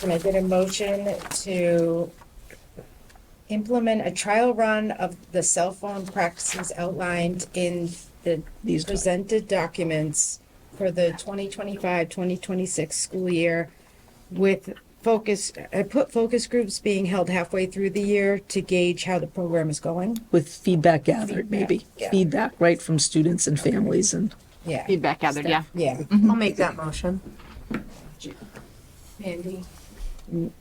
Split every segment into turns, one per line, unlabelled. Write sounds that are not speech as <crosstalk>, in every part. Can I get a motion to implement a trial run of the cell phone practices outlined in the
These doc-
presented documents for the 2025, 2026 school year with focus, I put focus groups being held halfway through the year to gauge how the program is going?
with feedback gathered, maybe.
yeah.
Feedback, right, from students and families and
Yeah,
Feedback gathered, yeah.
yeah.
I'll make that motion.
Andy?
Did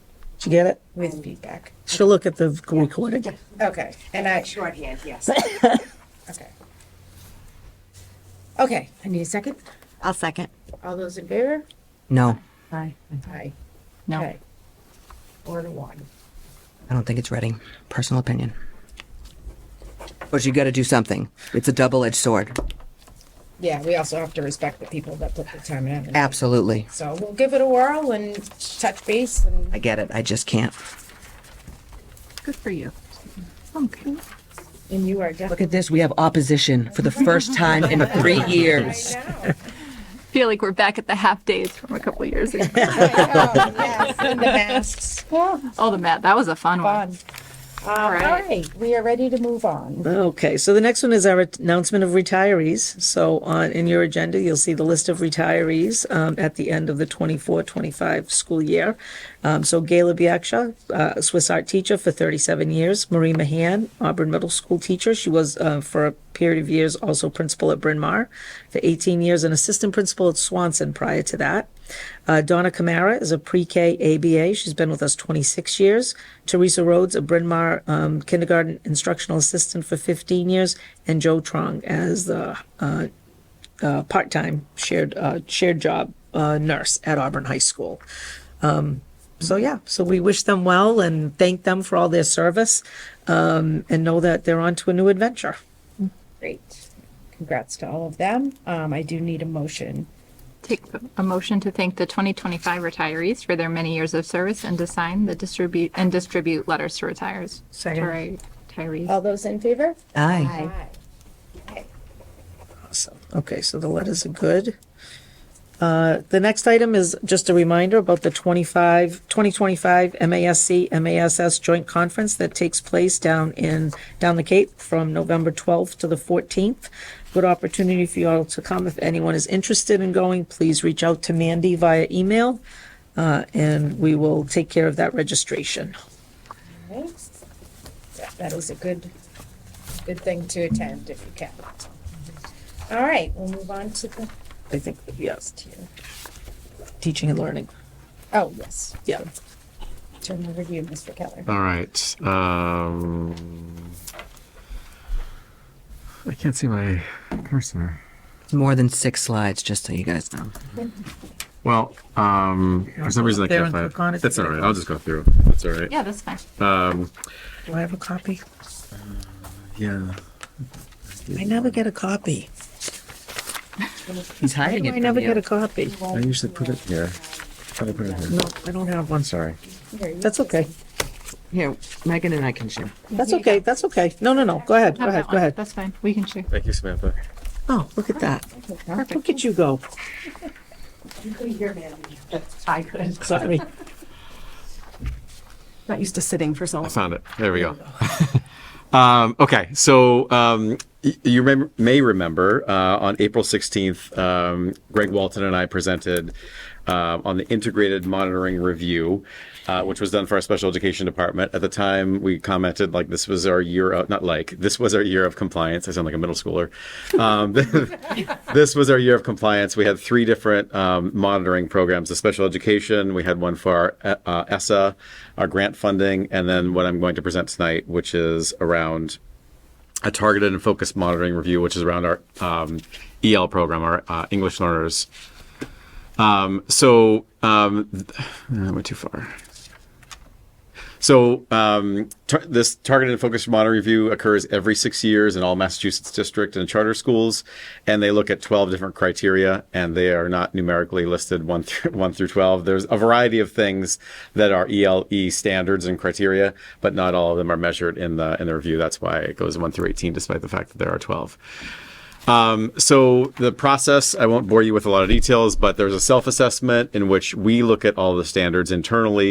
you get it?
With feedback.
She'll look at the recording.
Okay, and I,
Shorthand, yes.
okay. Okay, I need a second.
I'll second.
All those in favor?
No,
Aye.
Aye.
No,
Okay. Four to one.
I don't think it's Reading. Personal opinion. But you got to do something. It's a double-edged sword.
Yeah, we also have to respect the people that put the time in. and-
Absolutely.
So we'll give it a whirl and touch base and
I get it. I just can't.
good for you. Okay.
and you are definitely.
Look at this. We have opposition for the first time in three years.
Feel like we're back at the half days from a couple years ago.
Oh, And the masks. Fun.
Oh, the mat, that was a fun one.
All
right.
right, we are ready to move on.
Okay, so the next one is our announcement of retirees. So on, in your agenda, you'll see the list of retirees um, at the end of the 24-25 school year. Um, so Gayla Biaksha, uh, Swiss art teacher for thirty-seven years. Marie Mahan, Auburn Middle School teacher. She was uh, for a period of years also principal at Bryn Mawr for eighteen years and assistant principal at Swanson prior to that. Uh, Donna Camara is a pre-K ABA. She's been with us 26 years. Teresa Rhodes, a Bryn Mawr um, kindergarten instructional assistant for 15 years, and Joe Trong as the uh, uh, part-time shared uh, shared job uh, nurse at Auburn High School. Um, so yeah, so we wish them well and thank them for all their service, um, and know that they're on to a new adventure.
Great. Congrats to all of them. Um, I do need a motion.
Take a motion to thank the 2025 retirees for their many years of service and to sign the distribute and distribute letters to retires.
Second.
Sorry, Retirees.
Uh,
All those in favor?
Aye.
Aye.
Awesome. Okay, so the letters are good. Uh, The next item is just a reminder about the 25, 2025 MASC, MASs Joint Conference that takes place down in, down the Cape from November 12th to the 14th. Good opportunity for you all to come. If anyone is interested in going, please reach out to Mandy via email, uh, and we will take care of that registration.
Thanks. That- Hmm? That is a good, good thing to attend if you can. All right, we'll move on to the
I think, yes,
next here.
teaching and learning.
Oh, yes.
Yeah.
Turn over to you, Mr. Keller.
All right. Um, I can't see my cursor.
It's more than six slides, just so you guys know.
Well, um, for some reason I
There
can't
and
find.
click on it.
That's all right. I'll just go through. That's all right.
Yeah, that's fine.
Do I have a copy?
Yeah.
I never get a copy.
He's
Why
hiding
do
it
I
from
never
you.
get a copy?
I usually put it here. Try to put it here.
No, I don't have one.
I'm sorry.
That's okay.
Here, Megan and I can share.
That's okay. That's okay. No, no, no. Go ahead. Go
Have
ahead.
that
Go
one.
ahead.
That's fine. We can share.
Thank you, Samantha.
Oh, look at that. Look at you go. <laughs>
You could hear Mandy. I could.
Sorry.
Not used to sitting for so
I
long.
found it. There we go. <laughs> um, okay, so um, y- you may, may remember uh, on April 16th, um, Greg Walton and I presented uh, on the integrated monitoring review, uh, which was done for our special education department. At the time, we commented like this was our year of, not like, this was our year of compliance. I sound like a middle schooler. Um, this was our year of compliance. We had three different um, monitoring programs: the special education, we had one for our uh, ESSA, our grant funding, and then what I'm going to present tonight, which is around a targeted and focused monitoring review, which is around our um, EL program, our uh, English learners. Um, so um, th- I went too far. So um, tar- this targeted and focused model review occurs every six years in all Massachusetts district and charter schools, and they look at 12 different criteria, and they are not numerically listed one through <laughs> one through 12. There's a variety of things that are ELE standards and criteria, but not all of them are measured in the in the review. That's why it goes one through 18, despite the fact that there are 12. Um, so the process, I won't bore you with a lot of details, but there's a self-assessment in which we look at all the standards internally